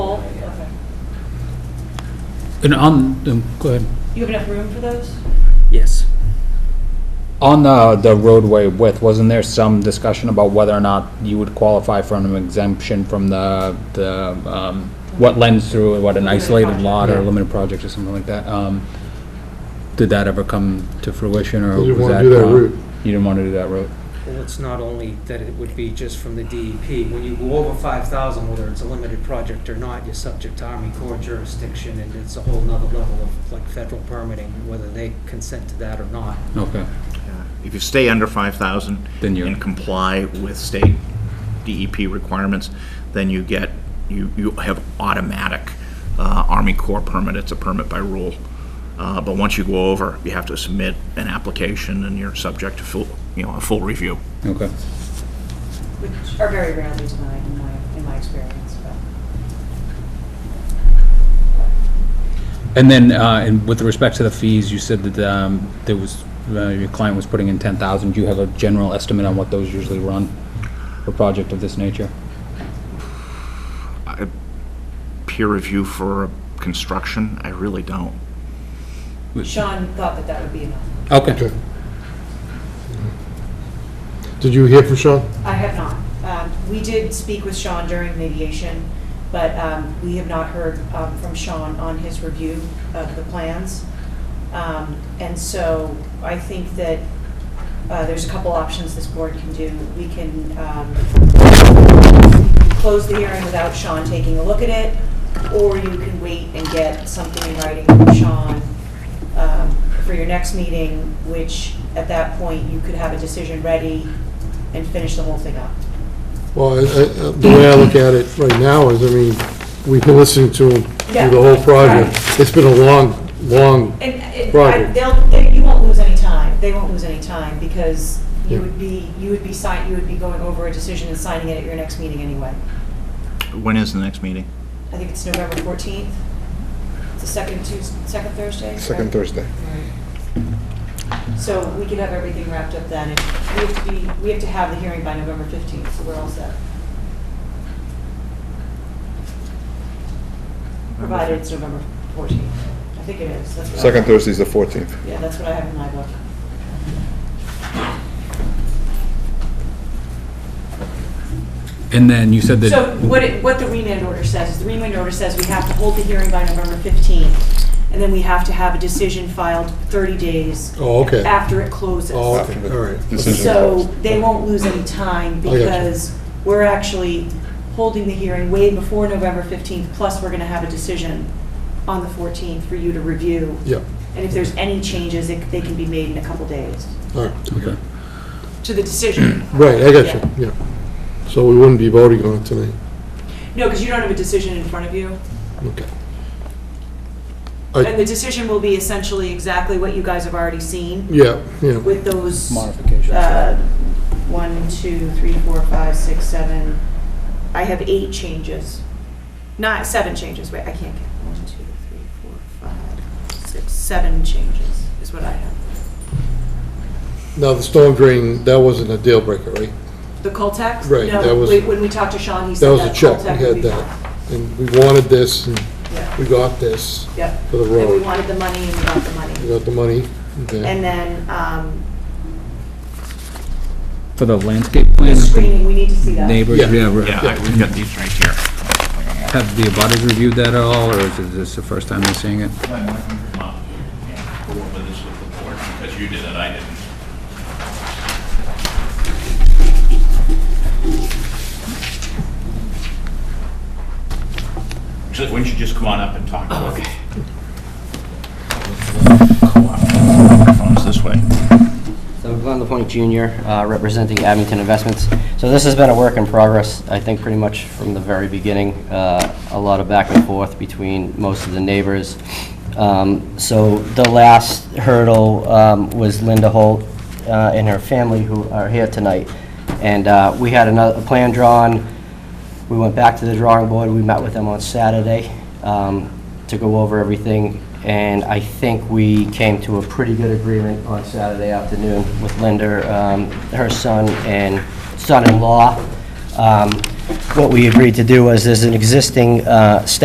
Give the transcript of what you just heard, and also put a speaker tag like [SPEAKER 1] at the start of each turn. [SPEAKER 1] And on, um, go ahead.
[SPEAKER 2] You have enough room for those?
[SPEAKER 3] Yes.
[SPEAKER 4] On the, the roadway width, wasn't there some discussion about whether or not you would qualify for an exemption from the, the, um, what lends through, what an
[SPEAKER 2] Limited
[SPEAKER 4] isolated
[SPEAKER 2] project.
[SPEAKER 4] lot or
[SPEAKER 1] Yeah.
[SPEAKER 4] limited project or something like that? Um, did that ever come to fruition or
[SPEAKER 5] You
[SPEAKER 4] was
[SPEAKER 5] didn't
[SPEAKER 4] that?
[SPEAKER 5] wanna do that
[SPEAKER 4] uh,
[SPEAKER 5] route.
[SPEAKER 4] You didn't want to do that route?
[SPEAKER 3] Well, it's not only that it would be just from the DEP. When you go over 5,000, whether it's a limited project or not, you're subject to Army Corps jurisdiction, and it's a whole nother level of, like, federal permitting, whether they consent to that or not.
[SPEAKER 4] Okay,
[SPEAKER 6] If you stay under 5,000
[SPEAKER 4] Then you're-
[SPEAKER 6] and comply with state DEP requirements, then you get, you, you have automatic uh, Army Corps permit. It's a permit by rule. Uh, But once you go over, you have to submit an application and you're subject to full, you know, a full review.
[SPEAKER 4] okay.
[SPEAKER 2] Which are very rarely denied in my, in my experience, but.
[SPEAKER 4] And then, uh, and with respect to the fees, you said that, um, there was, uh, your client was putting in ten thousand. Do you have a general estimate on what those usually run for a project of this nature?
[SPEAKER 6] I- Peer review for construction, I really don't.
[SPEAKER 2] Sean thought that that would be enough.
[SPEAKER 4] Okay,
[SPEAKER 5] Okay. Did you hear from Sean?
[SPEAKER 2] I have not. Um, We did speak with Sean during mediation, but um, we have not heard um, from Sean on his review of the plans. Um, And so I think that uh, there's a couple options this board can do. We can um, close the hearing without Sean taking a look at it, or you can wait and get something in writing from Sean um, for your next meeting, which at that point, you could have a decision ready and finish the whole thing up.
[SPEAKER 5] Well, I- I- uh, the way I look at it right now is, I mean, we've been listening to him
[SPEAKER 2] Yeah,
[SPEAKER 5] through the whole project.
[SPEAKER 2] right.
[SPEAKER 5] It's been a long, long,
[SPEAKER 2] And uh, it- I-
[SPEAKER 5] Right.
[SPEAKER 2] they'll, they- you won't lose any time, they won't lose any time, because
[SPEAKER 5] Yeah.
[SPEAKER 2] you would be, you would be sign, you would be going over a decision and signing it at your next meeting anyway.
[SPEAKER 6] When is the next meeting?
[SPEAKER 2] I think it's November 14th, it's the second Tuesday, second Thursday?
[SPEAKER 5] second
[SPEAKER 2] right?
[SPEAKER 5] Thursday.
[SPEAKER 2] So we could have everything wrapped up then, and we have to be, we have to have the hearing by November 15th, so we're all set. Provided it's November 14th, I think it is, that's what I-
[SPEAKER 7] Second Thursday's the 14th.
[SPEAKER 2] Yeah, that's what I have in my book.
[SPEAKER 4] and then you said that.
[SPEAKER 2] So what it, what the remand order says, is the remand order says we have to hold the hearing by November 15th, and then we have to have a decision filed 30 days
[SPEAKER 5] Oh, okay.
[SPEAKER 2] after it closes.
[SPEAKER 5] Oh, okay, all right.
[SPEAKER 7] Decision
[SPEAKER 2] So
[SPEAKER 7] closed.
[SPEAKER 2] they won't lose any time
[SPEAKER 5] I got you.
[SPEAKER 2] because we're actually holding the hearing way before November 15th, plus we're going to have a decision on the 14th for you to review.
[SPEAKER 5] Yeah,
[SPEAKER 2] And if there's any changes, it- they can be made in a couple days
[SPEAKER 5] all right.
[SPEAKER 4] Okay.
[SPEAKER 2] to the decision.
[SPEAKER 5] Right, I got
[SPEAKER 2] Yeah.
[SPEAKER 5] you, yeah. So we wouldn't be voting on it tonight.
[SPEAKER 2] No, because you don't have a decision in front of you.
[SPEAKER 5] Okay.
[SPEAKER 2] And the decision will be essentially exactly what you guys have already seen
[SPEAKER 5] Yeah, yeah.
[SPEAKER 2] with those,
[SPEAKER 4] Modifications.
[SPEAKER 2] uh, one, two, three, four, five, six, seven. I have eight changes. Not, seven changes, wait, I can't count. One, two, three, four, five, six, seven changes is what I have.
[SPEAKER 5] Now, the storm drain, that wasn't a deal breaker, right?
[SPEAKER 2] The Coltex?
[SPEAKER 5] Right, that
[SPEAKER 2] No,
[SPEAKER 5] was-
[SPEAKER 2] wait, when we talked to Sean, he
[SPEAKER 5] That
[SPEAKER 2] said
[SPEAKER 5] was a
[SPEAKER 2] that
[SPEAKER 5] check,
[SPEAKER 2] Coltech
[SPEAKER 5] we
[SPEAKER 2] would be
[SPEAKER 5] had
[SPEAKER 2] fine.
[SPEAKER 5] that. And we wanted this, and
[SPEAKER 2] Yeah,
[SPEAKER 5] we got this
[SPEAKER 2] yeah.
[SPEAKER 5] for the
[SPEAKER 2] And we
[SPEAKER 5] road.
[SPEAKER 2] wanted the money and we got the money.
[SPEAKER 5] We got the money, okay.
[SPEAKER 2] And then, um,
[SPEAKER 4] For the landscape
[SPEAKER 2] the
[SPEAKER 4] plan?
[SPEAKER 2] screening, we need to see that.
[SPEAKER 4] Neighbors,
[SPEAKER 5] Yeah.
[SPEAKER 4] yeah, re-
[SPEAKER 6] Yeah, I- we've got these right here.
[SPEAKER 4] have the abutters reviewed that at all, or is this the first time they're seeing it?
[SPEAKER 6] Glenn, why don't you come up and go over this with the board, because you did it, I didn't. So why don't you just come on up and talk? Okay. Microphone's this way.
[SPEAKER 8] So Glenn LaPointe Jr., uh, representing Abington Investments. So this has been a work in progress, I think pretty much from the very beginning, uh, a lot of back and forth between most of the neighbors. Um, So the last hurdle um, was Linda Holt uh, and her family who are here tonight. And uh, we had another a plan drawn, we went back to the drawing board, we met with them on Saturday um, to go over everything, and I think we came to a pretty good agreement on Saturday afternoon with Linda, um, her son, and son-in-law. Um, What we agreed to do was, there's an existing uh, step